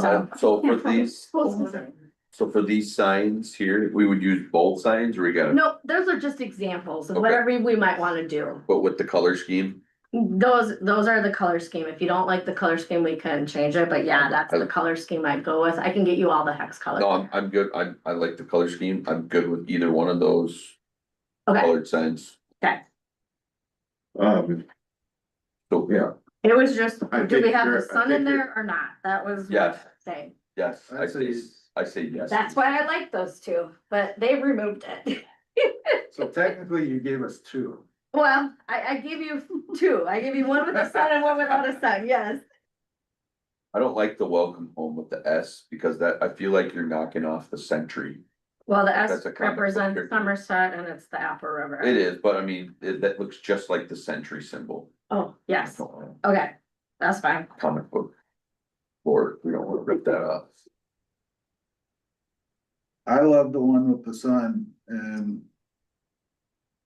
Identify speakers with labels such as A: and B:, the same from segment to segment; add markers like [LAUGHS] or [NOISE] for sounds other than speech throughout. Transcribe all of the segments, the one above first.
A: So-
B: So for these,
A: Nope,
B: so for these signs here, we would use both signs or we got,
A: those are just examples of
B: Okay.
A: whatever we might wanna do.
B: but with the color scheme?
A: Those, those are the color scheme. If you don't like the color scheme, we can change it, but yeah, that's the color scheme I'd go with. I can get you all the hex
B: No,
A: color.
B: I'm, I'm good. I, I like the color scheme. I'm good with either one of those
A: Okay,
B: colored signs.
A: okay.
C: Um,
B: So, yeah,
A: It was just,
C: I
A: do we
C: think
A: have
C: you're-
A: the
C: I
A: sun in
C: think you're-
A: there or not? That was what I
B: Yes.
A: was saying.
B: yes, I
C: I'd
B: say,
C: say,
B: I say yes.
A: That's why I like those two, but they removed it. [LAUGHS]
C: so technically you gave us two.
A: Well, I, I give you two. I give you one with a sun and one without a sun, yes.
B: I don't like the welcome home with the S because that, I feel like you're knocking off the century.
A: Well, the S
B: That's a comic book
A: represents
B: character.
A: Somerset and it's the Apple River.
B: It is, but I mean, it, that looks just like the century symbol.
A: Oh, yes,
B: Comic
A: okay, that's fine.
B: book. Or we don't wanna rip that up.
C: I love the one with the sun and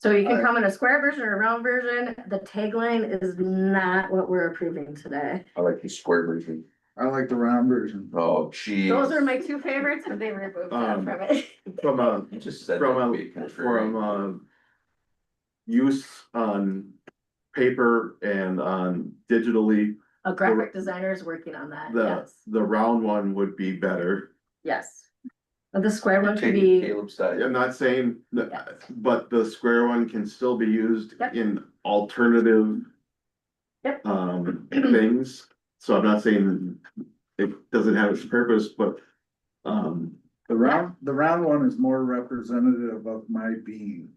A: So you can
C: I-
A: come in a square version or a round version. The tagline is not what we're approving today.
B: I like the square version.
C: I like the round version.
B: Oh, gee.
A: Those are my two favorites, but they removed that
C: Um,
A: from it. [LAUGHS]
C: From a,
B: You just said.
C: from a, from a. Use on paper and on digitally,
A: A graphic designer is working on that,
C: the,
A: yes,
C: the round one would be better.
A: yes. But the square one should
B: Taking
A: be,
B: Caleb's side.
C: I'm not saying that,
A: Yes.
C: but the square one can still be used
A: Yep.
C: in alternative.
A: Yep.
C: Um, things, so I'm not saying it doesn't have its purpose, but, um.
D: The round, the round one is more representative of my being.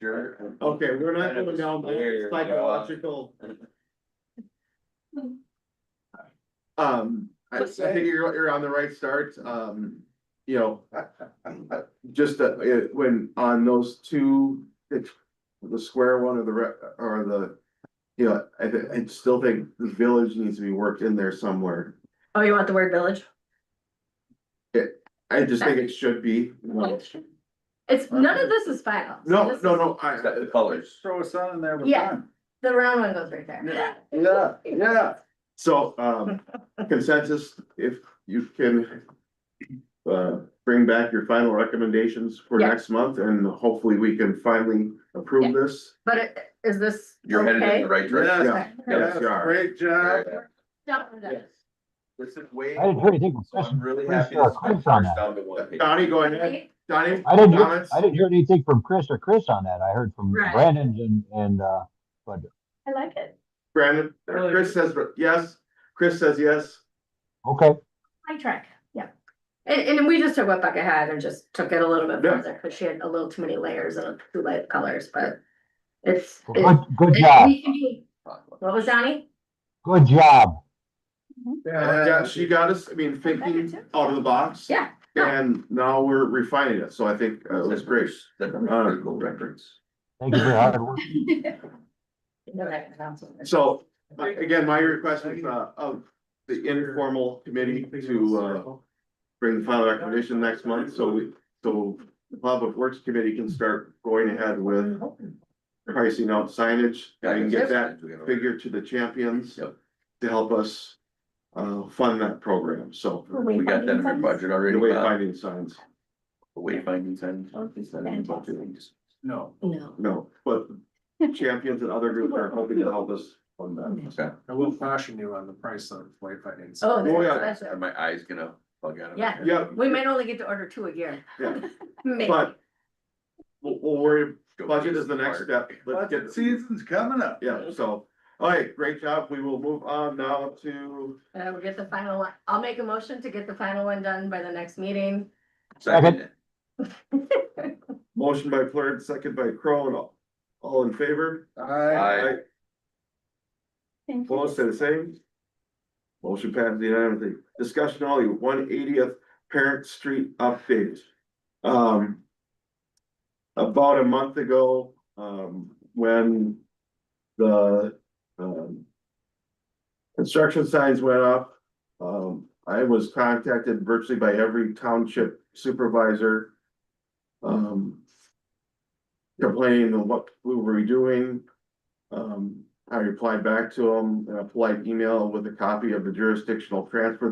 B: Sure.
C: Okay, we're not going down
B: Weird,
C: there,
B: yeah.
C: uh, [LAUGHS] psychological. Um, I I think you're, you're on the right start, um, you know. Just, uh, it- when, on those two, it's the square one or the, re- or the. You know, I, thi- I still think the village needs to be worked in there somewhere,
A: oh, you want the word village?
C: I just think it should be, you know.
A: It's, none of this is final. so
C: No,
A: this
C: no,
A: is-
C: no, I,
B: It's got the colors.
D: Throw a sun in there with
A: Yeah.
D: fun.
A: The round one goes right there, yeah.
C: Yeah, yeah, so, um, consensus, if you can. Uh, bring back your final recommendations for
A: Yeah.
C: next month and hopefully we can finally approve this.
A: But it- is this
B: You're headed in
A: okay?
B: the right direction.
C: Yeah. Yes, you are.
D: Great job.
A: Done, done.
B: This is way,
E: I didn't hear anything.
B: so I'm really
E: Chris,
B: happy
E: uh,
B: this went
E: Chris on that.
B: down to one page.
C: Donnie, go ahead, Donnie.
E: I didn't, hear-
C: comments?
E: I didn't hear anything from Chris or Chris on that. I heard from
A: Right.
E: Brandon and, and, uh, but,
A: I like it.
C: Brandon, Chris says yes, Chris says yes,
E: okay.
A: My track, yeah. And, and we just took what Becca had and just took it a little bit
C: Yeah.
A: further, because she had a little too many layers and too light colors, but it's.
E: Well,
A: it-
E: Good, good
A: it-
E: job.
A: we can be- What was Johnny?
E: Good job.
C: Uh, yeah, she got us, I mean, thinking out of the box.
A: Yeah.
C: And now we're refining it, so I think uh, it was great.
B: That's a pretty cool reference.
E: Thank you for your hard work.
C: So, uh, again, my request is, uh, of the informal committee to, uh, bring the final recommendation next month, so we, so the public works committee can start going ahead with pricing out signage, I can get that figure to the champions
B: Yep.
C: to help us, uh, fund that program, so.
B: We got that in our budget
C: The
B: already.
C: way
B: Bob?
C: finding signs,
B: The wayfinding signs. Is that in the budget?
D: No.
A: No.
C: no, but champions and other groups are hoping to help us fund that.
B: Okay.
D: I will caution you on the price of wayfinding.
C: Oh,
A: Oh, that's
C: yeah.
B: Are
A: expensive.
B: my eyes gonna bug out of my
A: Yeah.
B: head?
C: Yep.
A: We might only get to order two a year.
C: Yeah,
A: Maybe. Uh,
C: But- we'll, we'll worry,
B: Go
C: budget
B: to
C: is the next
B: park.
C: step, let's get,
D: season's coming up.
C: yeah, so, all right, great job, we will move on now to
A: Uh, we'll get the final one. I'll make a motion to get the final one done by the next meeting.
B: Second.
C: Motion by Flurd, second by Crone, all, all in favor?
B: Aye.
C: Opposed, say the same. Motion passed unanimously. Discussion only, one eightieth Parent Street update. Um. About a month ago, um, when the, um. Construction signs went up, um, I was contacted virtually by every township supervisor. Um. Complaining of what we were doing. Um, I replied back to him in a polite email with a copy of the jurisdictional transfer